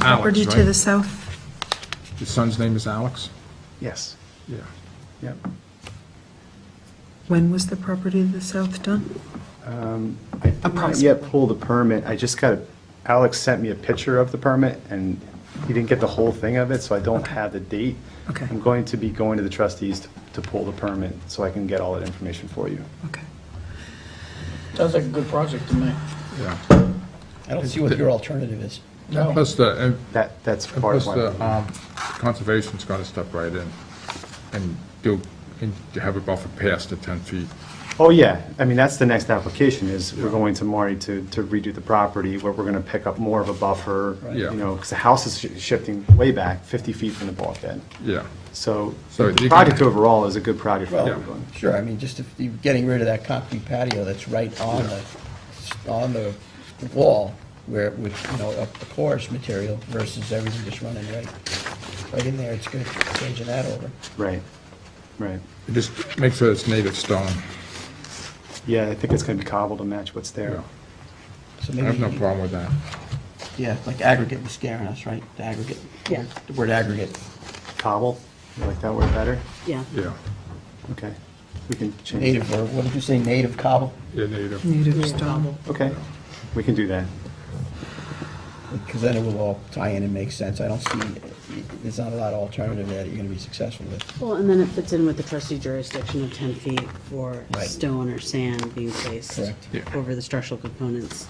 property Alex, to right? the south. His son's name is Alex? Yes, Yeah. yep. When was the property to the south done? I did not yet pull the permit, I just got, a- Alex sent me a picture of the permit, and he didn't get the whole thing of it, so I don't have the date. Okay. I'm going to be going to the trustees to- to pull the permit, so I can get all that information for you. Okay. Sounds like a good project to me. Yeah. I don't see what your alternative is. No. Plus the, and That, that's and part plus of the my, um, conservation's got to step right in and do, and have a buffer past the 10 feet. oh, yeah, I mean, that's the next application, is we're going to Marty to to redo the property, where we're gonna pick up more of a buffer, Yeah. you know, because the house is sh- shifting way back, 50 feet from the bulkhead. Yeah. So So you the can- project overall is a good project for Well, everyone. Sure, I mean, just if you're getting rid of that concrete patio that's right on the, on the wall where, with, you know, up the porous material versus everything just running right, right in there, it's good, changing that over. Right, right. Just make sure it's native stone. Yeah, I think it's going to be cobbled to match what's Yeah. there. So I maybe have no you- problem with that. Yeah, like aggregate was scaring us, right? The aggregate. Yeah. The word aggregate. Cobble, you like that word better? Yeah. Yeah. Okay, we can change Native, it. or what did you say, native cobble? Yeah, native. Native stone. Okay, we can do that. Because then it will all tie in and make sense. I don't see, there's not a lot of alternative there that you're gonna be successful with. Well, and then it fits in with the trustee jurisdiction of 10 feet for Right. stone or sand being placed Correct. Yeah. over the structural components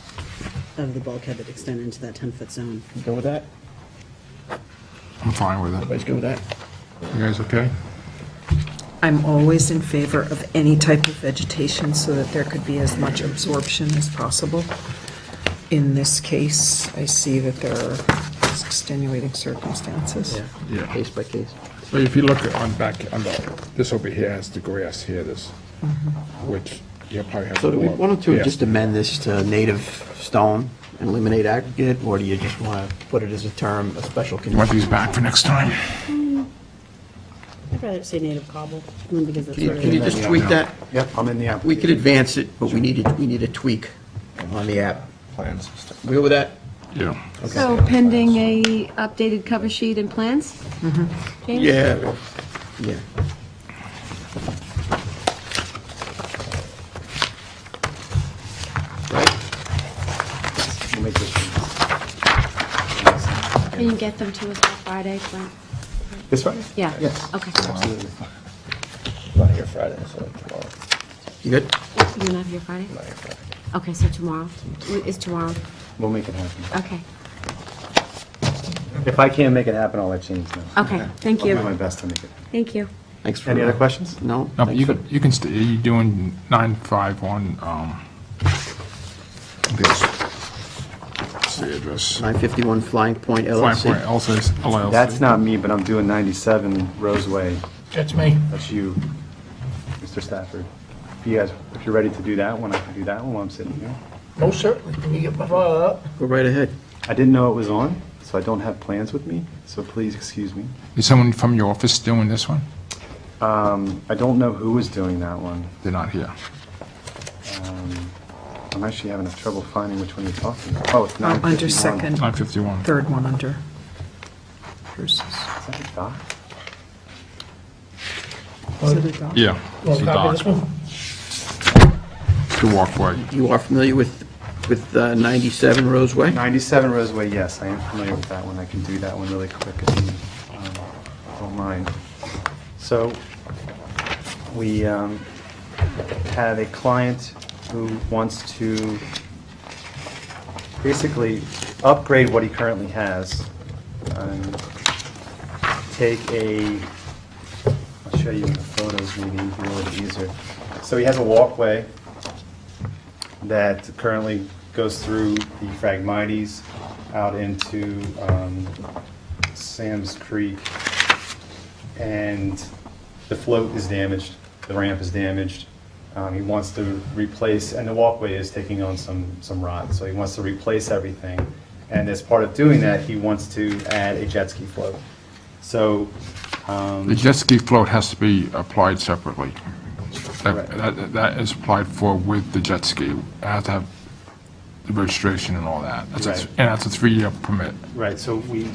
of the bulkhead that extend into that 10-foot zone. You Go with that? I'm fine with it. Everybody's good with that? You guys okay? I'm always in favor of any type of vegetation so that there could be as much absorption as possible. In this case, I see that there are extenuating circumstances. Yeah. Case by case. So if you look on back, on the, this over here has the grass here, this, which you probably have. So do we, more why don't you past just amend this to native stone and eliminate aggregate, or do you just want to put it as a term, a special You want condition? these back for next time? I'd rather say native cobble, because that's Can you- what can you it just tweak that? Yep, I'm in the We application. could advance it, but we need a, we need a tweak on the app. Plans and stuff. We go with that? Yeah. So pending a updated cover sheet and plans? James? Mm-hmm. Yeah. Yeah. We'll make this Can you get them to us by Friday, Clint? This Friday? Yeah. Yes. Okay. Absolutely. I'm Not here Friday, so tomorrow. You good? You're not here Friday? Not here Friday. Okay, so tomorrow, is tomorrow, We'll make it happen. okay, If I can't make it happen, I'll let James know. okay, thank I'll do my you, best to make it. happen. thank you. Thanks for. Any other questions? No. No, but thanks you for- could, you can, st- you doing nine, five, one, um, this, what's the address? 951 Flying Point Five point oh. LLC. LLC. LLC. That's not me, but I'm doing 97 Roseway. That's me. That's you, Mr. Stafford. If you guys, if you're ready to do that one, I can do that one while I'm sitting here. No, certainly. Can you get my file up? Go right ahead. I didn't know it was on, so I don't have plans with me, so please excuse me. Is someone from your office doing this one? I don't know who was doing that one. They're not here. I'm actually having trouble finding which one you're talking about. Oh, it's Uh, 951. Under second, Nine fifty-one. third one under Bruce's. Is that a doc? Is it a dog? Yeah. Want it's to copy a dock. this one? The walkway. You are familiar with, with uh, 97 Roseway? 97 Roseway, yes, I am familiar with that one. I can do that one really quick if you um, don't mind. So we um, have a client who wants to basically upgrade what he currently has. um, Take a, I'll show you in the photos maybe, it'll be a little bit easier. So he has a walkway that currently goes through the Phragmites out into um, Sam's Creek. And the float is damaged, the ramp is damaged. Um, He wants to replace, and the walkway is taking on some, some rot, so he wants to replace everything. And as part of doing that, he wants to add a jet ski float. So, um, The jet ski float has to be applied separately. That- Correct. That, that is applied for with the jet ski. It has to have the registration and all that. That's a- Right. And that's a three-year permit. Right, so we,